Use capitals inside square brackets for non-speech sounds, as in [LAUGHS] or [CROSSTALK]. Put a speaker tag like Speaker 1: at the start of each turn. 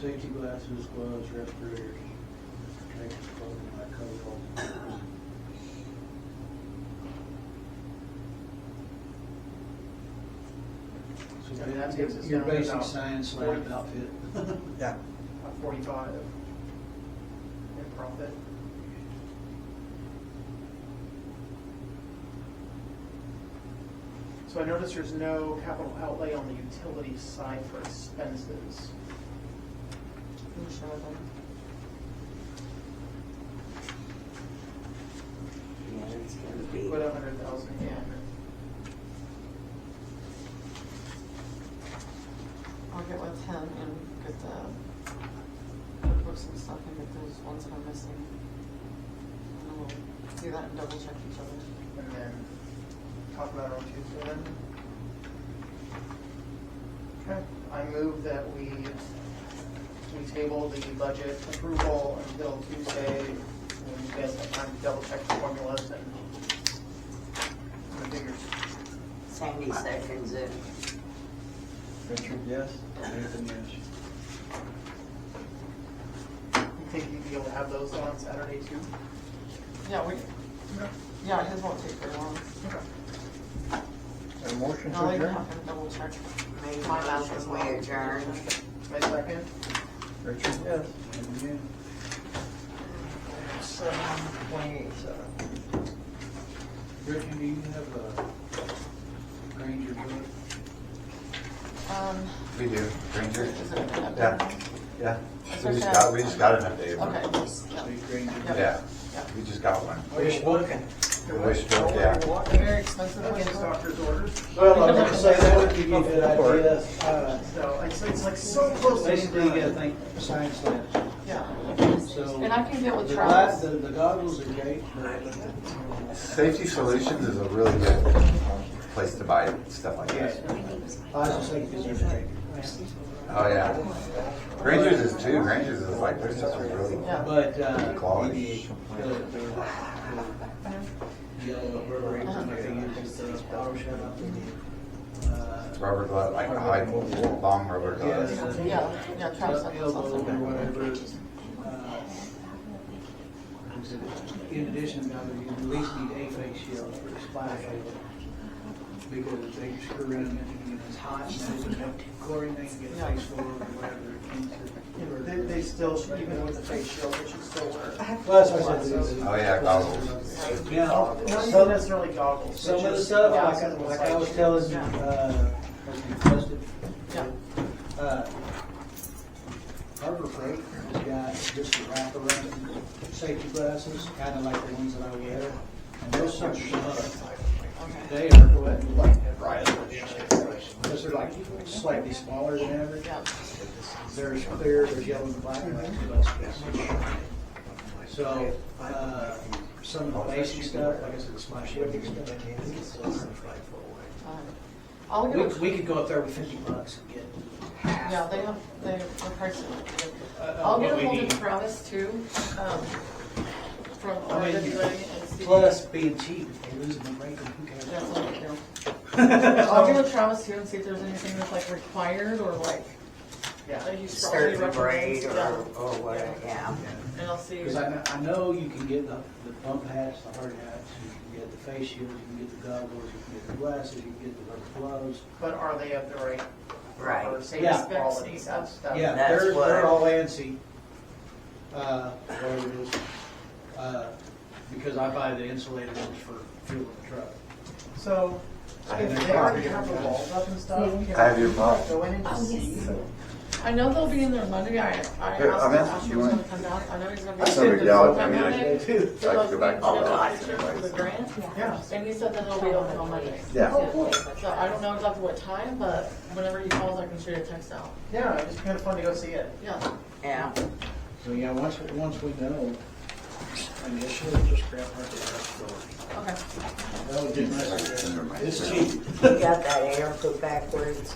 Speaker 1: safety glasses, gloves, respirators, protective clothing, like cover all.
Speaker 2: I mean, that takes us
Speaker 1: So your
Speaker 2: down to
Speaker 1: basic
Speaker 2: about
Speaker 1: science lab
Speaker 2: 40. [LAUGHS]
Speaker 1: outfit.
Speaker 3: Yeah.
Speaker 2: about forty-five in profit. So I notice there's no capital outlay on the utility side for expenses.
Speaker 4: Can you show them? Yeah, it's gonna be.
Speaker 2: Put a hundred thousand in.
Speaker 4: I'll get with him and get the cookbooks and stuff and get those ones that are missing. And then we'll do that and double check each other.
Speaker 2: And then talk about it on Tuesday then. Okay, I move that we, we table the budget approval until Tuesday, when you guys have time to double check the formulas and the figures.
Speaker 5: Sandy seconds it.
Speaker 1: Richard, yes? Nathan, yes.
Speaker 2: You think you'd be able to have those on Saturday too?
Speaker 4: Yeah, we,
Speaker 3: No.
Speaker 4: yeah, his won't take very long.
Speaker 3: A motion
Speaker 4: No,
Speaker 3: to
Speaker 4: they can
Speaker 3: adjourn?
Speaker 4: have him double check.
Speaker 5: Make a
Speaker 4: My last
Speaker 5: motion,
Speaker 4: is
Speaker 5: we
Speaker 4: long.
Speaker 5: adjourn.
Speaker 2: My second?
Speaker 3: Richard?
Speaker 1: Yes. Nathan, yes.
Speaker 5: Seven twenty-seven.
Speaker 1: Richard, do you have a Granger book?
Speaker 4: Um,
Speaker 6: We do, Granger.
Speaker 4: is it an update?
Speaker 6: Yeah, yeah.
Speaker 4: It's
Speaker 6: We just
Speaker 4: okay.
Speaker 6: got, we just got an update. one.
Speaker 4: Okay, yes, yeah.
Speaker 1: Big Granger book?
Speaker 6: Yeah,
Speaker 4: Yeah.
Speaker 6: we just got one.
Speaker 1: Are you looking?
Speaker 6: Voice book, yeah.
Speaker 4: They're very expensive.
Speaker 2: Against doctor's orders,
Speaker 1: Well, I'm gonna say that would give you a good idea. Uh,
Speaker 2: so it's, it's like so close to.
Speaker 1: Basically, you gotta think science lab.
Speaker 4: Yeah,
Speaker 1: So.
Speaker 4: and I can get with
Speaker 1: the
Speaker 4: Travis.
Speaker 1: gla- The the goggles are great, but
Speaker 6: Safety Solutions is a really good place to buy stuff like
Speaker 1: yeah,
Speaker 6: this.
Speaker 1: I just think it's interesting.
Speaker 6: Oh, yeah. Granger's is too, Granger's is like, their stuff is really,
Speaker 4: Yeah.
Speaker 1: But, uh.
Speaker 6: Quality.
Speaker 1: the- the- the Yellow rubber rings and everything, it's just a bottle shut up. Uh,
Speaker 6: rubber glove, like high, long rubber gloves.
Speaker 1: Yeah.
Speaker 4: Yeah, yeah, Travis.
Speaker 1: Up
Speaker 4: sent us
Speaker 1: elbow or
Speaker 4: something.
Speaker 1: whatever. uh, In addition, now that you at least need a face shield for a spy shield. Because they screw around and you know, it's hot and they don't chlorine, they can get a face full or whatever.
Speaker 2: They, they still, should- even with the face shield, they should still wear. it.
Speaker 1: Well, that's what I said.
Speaker 6: Oh, yeah, goggles.
Speaker 1: Now,
Speaker 2: Not even
Speaker 1: some,
Speaker 2: necessarily goggles.
Speaker 1: some of the
Speaker 2: just-
Speaker 1: stuff,
Speaker 2: Yeah,
Speaker 1: like, like I was telling, you, uh, as you requested,
Speaker 4: Yeah,
Speaker 1: Uh, Harbor Freight has got just a wraparound safety glasses, kind of like the ones that I wear. And those suckers are,
Speaker 4: okay,
Speaker 1: they are what, like, right, because they're like slightly smaller than average.
Speaker 4: yeah.
Speaker 1: They're clear, they're yellow and black, like the best So, uh, some of the basic stuff, like I said, it's my shipping stuff.
Speaker 4: Um, I'll
Speaker 1: We,
Speaker 4: get with
Speaker 1: we could go up there with fifty bucks and get
Speaker 4: Yeah, they have, they are pricing. I'll get
Speaker 1: Uh, Oh, what we
Speaker 4: a hold
Speaker 1: need.
Speaker 4: of Travis too, um, from
Speaker 1: I mean,
Speaker 4: RWA and see.
Speaker 1: Oh, Plus being cheap, if they lose my rate, who cares?
Speaker 4: That's what I
Speaker 1: [LAUGHS]
Speaker 4: do. I'll get with Travis too and see if there's anything that's like required or like,
Speaker 2: Yeah.
Speaker 4: that he's probably
Speaker 5: Certain grade
Speaker 4: recommends.
Speaker 5: or,
Speaker 4: Yeah.
Speaker 5: or what, yeah.
Speaker 4: And I'll see.
Speaker 1: Because I know, I know you can get the, the bump hats, the hard hats, you can get the face shields, you can get the goggles, you can get the glasses, you can get the rubber gloves.
Speaker 2: But are they of the right,
Speaker 5: Right.
Speaker 2: or safety
Speaker 1: Yeah.
Speaker 2: quality, that's, that's.
Speaker 1: Yeah,
Speaker 5: That's
Speaker 1: they're,
Speaker 5: what-
Speaker 1: they're all ANSI, uh, whatever it is, uh, because I buy the insulated ones for fuel in the truck.
Speaker 2: So, if they already have the walls up and stuff,
Speaker 6: I have your
Speaker 2: can I
Speaker 6: book.
Speaker 2: go in and just see.
Speaker 4: I know they'll be in there Monday. I, I asked
Speaker 6: Here,
Speaker 4: him,
Speaker 6: I'm in.
Speaker 4: if he was gonna come down. I know he's gonna be.
Speaker 6: That's no big deal. I
Speaker 4: Come
Speaker 6: mean, I-
Speaker 4: Monday. "Oh,
Speaker 1: too.
Speaker 6: I could go back to
Speaker 4: Supposed to be
Speaker 6: that.
Speaker 4: in July for the grant.
Speaker 2: Yeah.
Speaker 4: And he said that it'll be open on Monday.
Speaker 6: Yeah.
Speaker 4: So I don't know exactly what time, but whenever he calls, I can shoot a text out.
Speaker 2: Yeah, it'd just kind of fun to go see it.
Speaker 4: Yeah.
Speaker 5: Yeah.
Speaker 1: So, yeah, once, we- once we know, I mean, it should have just grab our door.
Speaker 4: Okay.
Speaker 1: That would be nice.
Speaker 6: Never mind.
Speaker 1: It's cheap.
Speaker 5: You got that air put backwards.